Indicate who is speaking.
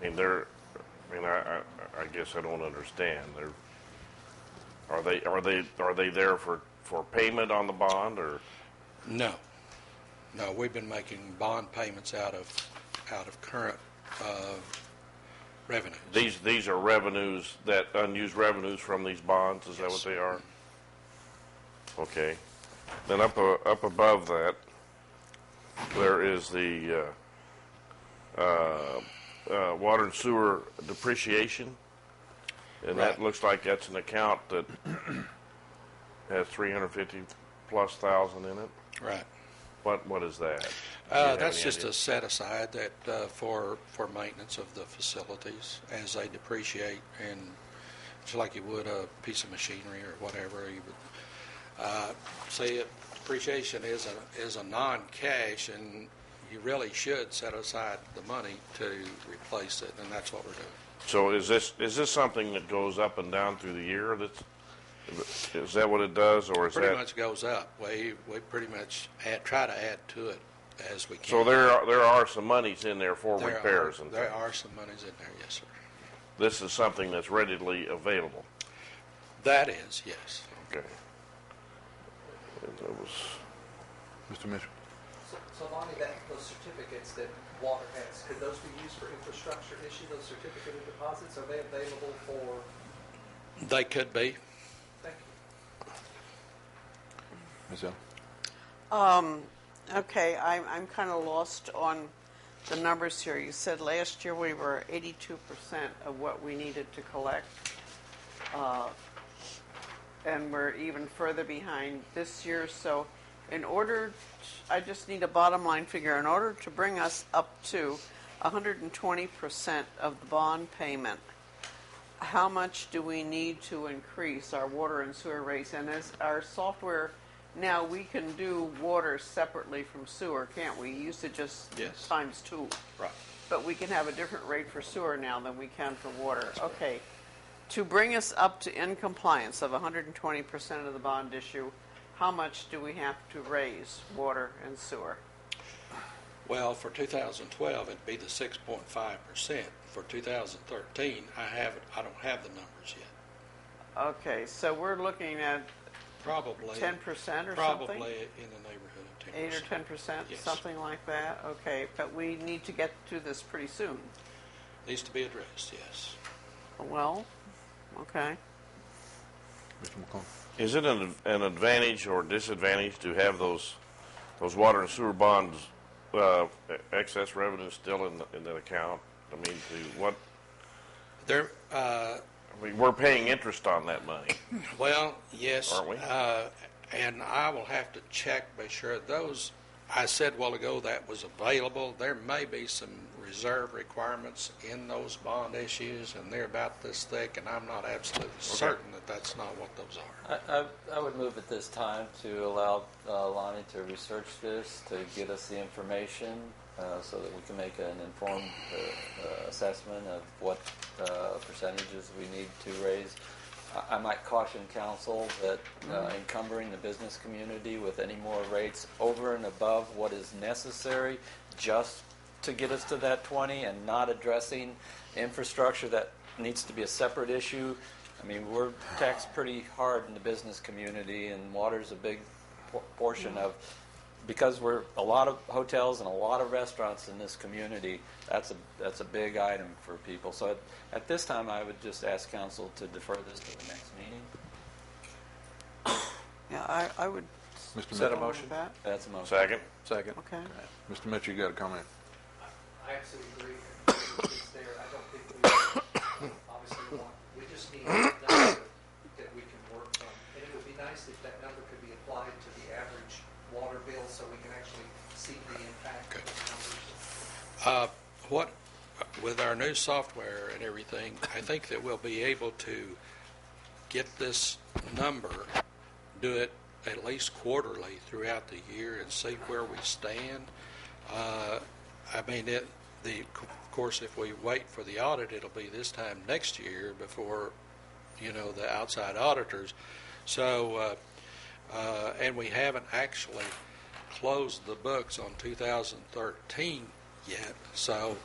Speaker 1: I mean, they're, I mean, I, I, I guess I don't understand. They're, are they, are they, are they there for, for payment on the bond or?
Speaker 2: No. No, we've been making bond payments out of, out of current uh, revenues.
Speaker 1: These, these are revenues, that unused revenues from these bonds, is that what they are? Okay. Then up, uh, up above that, there is the uh, uh, uh, water and sewer depreciation. And that
Speaker 2: Right.
Speaker 1: looks like that's an account that has 350 plus thousand in it.
Speaker 2: Right.
Speaker 1: What, what is that? Do you
Speaker 2: Uh,
Speaker 1: have
Speaker 2: That's
Speaker 1: any
Speaker 2: just
Speaker 1: idea?
Speaker 2: a set aside that, uh, for, for maintenance of the facilities as they depreciate and just like you would a piece of machinery or whatever. you would, uh, See, depreciation is a, is a non-cash and you really should set aside the money to replace it and that's what we're doing.
Speaker 1: So is this, is this something that goes up and down through the year? That's, is that what it does or is that?
Speaker 2: Pretty much goes up. We, we pretty much add, try to add to it as we can.
Speaker 1: So there, are- there are some monies in there for
Speaker 2: There are-
Speaker 1: repairs and
Speaker 2: There
Speaker 1: things.
Speaker 2: are some monies in there, yes, sir.
Speaker 1: This is something that's readily available.
Speaker 2: That is, yes.
Speaker 1: Okay. And that was-
Speaker 3: Mr. Mitchell?
Speaker 4: So- So Lonnie, that, those certificates that water has, could those be used for infrastructure issue, those certificate of deposits? Are they available for,
Speaker 2: They could be.
Speaker 4: thank you.
Speaker 3: Ms. Allen?
Speaker 5: Okay, I'm, I'm kind of lost on the numbers here. You said last year we were 82% of what we needed to collect, uh, and we're even further behind this year. So, in order, t- I just need a bottom line figure. In order to bring us up to 120% of the bond payment, how much do we need to increase our water and sewer rates? And as our software, now we can do water separately from sewer, can't we? You Used to just
Speaker 2: Yes.
Speaker 5: times two.
Speaker 2: Right.
Speaker 5: But we can have a different rate for sewer now than we can for water. Okay. To bring us up to in compliance of 120% of the bond issue, how much do we have to raise water and sewer?
Speaker 2: Well, for 2012, it'd be the 6.5%. For 2013, I have, I don't have the numbers yet.
Speaker 5: Okay, so we're looking at
Speaker 2: Probably.
Speaker 5: 10% or something?
Speaker 2: Probably in the neighborhood of 10%.
Speaker 5: Eight or ten percent,
Speaker 2: Yes.
Speaker 5: something like that, okay, but we need to get to this pretty soon.
Speaker 2: Needs to be addressed, yes.
Speaker 5: Well, okay,
Speaker 3: Mr. McClung?
Speaker 1: Is it an, an advantage or disadvantage to have those, those water and sewer bonds, uh, e- excess revenue still in, the- in that account? I mean, to what,
Speaker 2: There, uh,
Speaker 1: I mean, we're paying interest on that money.
Speaker 2: Well, yes.
Speaker 1: Aren't we?
Speaker 2: uh, And I will have to check, make sure those, I said a while ago that was available. There may be some reserve requirements in those bond issues, and they're about this thick, and I'm not absolutely certain that that's not what those are.
Speaker 6: I, I, I would move at this time to allow uh, Lonnie to research this, to get us the information, uh, so that we can make an informed uh, uh, assessment of what uh, percentages we need to raise. I, I might caution council that uh, encumbering the business community with any more rates over and above what is necessary just to get us to that 20 and not addressing infrastructure that needs to be a separate issue. I mean, we're taxed pretty hard in the business community, and water's a big por- portion of, because we're, a lot of hotels and a lot of restaurants in this community, that's a, that's a big item for people. So at, at this time, I would just ask council to defer this to the next meeting.
Speaker 5: yeah, I, I would.
Speaker 3: Mr.
Speaker 5: go
Speaker 3: Is that a
Speaker 5: with
Speaker 3: motion?
Speaker 5: that.
Speaker 6: That's a motion.
Speaker 1: Second?
Speaker 3: Second.
Speaker 5: Okay,
Speaker 3: Mr. Mitchell, you got a comment?
Speaker 4: I absolutely agree. It's there. I don't think we obviously want, we just need a number that we can work from. And it would be nice if that number could be applied to the average water bill so we can actually see the impact of the
Speaker 2: Uh,
Speaker 4: numbers.
Speaker 2: What, with our new software and everything, I think that we'll be able to get this number, do it at least quarterly throughout the year and see where we stand. Uh, I mean, it, the, of course, if we wait for the audit, it'll be this time next year before, you know, the outside auditors. So, uh, uh, and we haven't actually closed the books on 2013 yet. So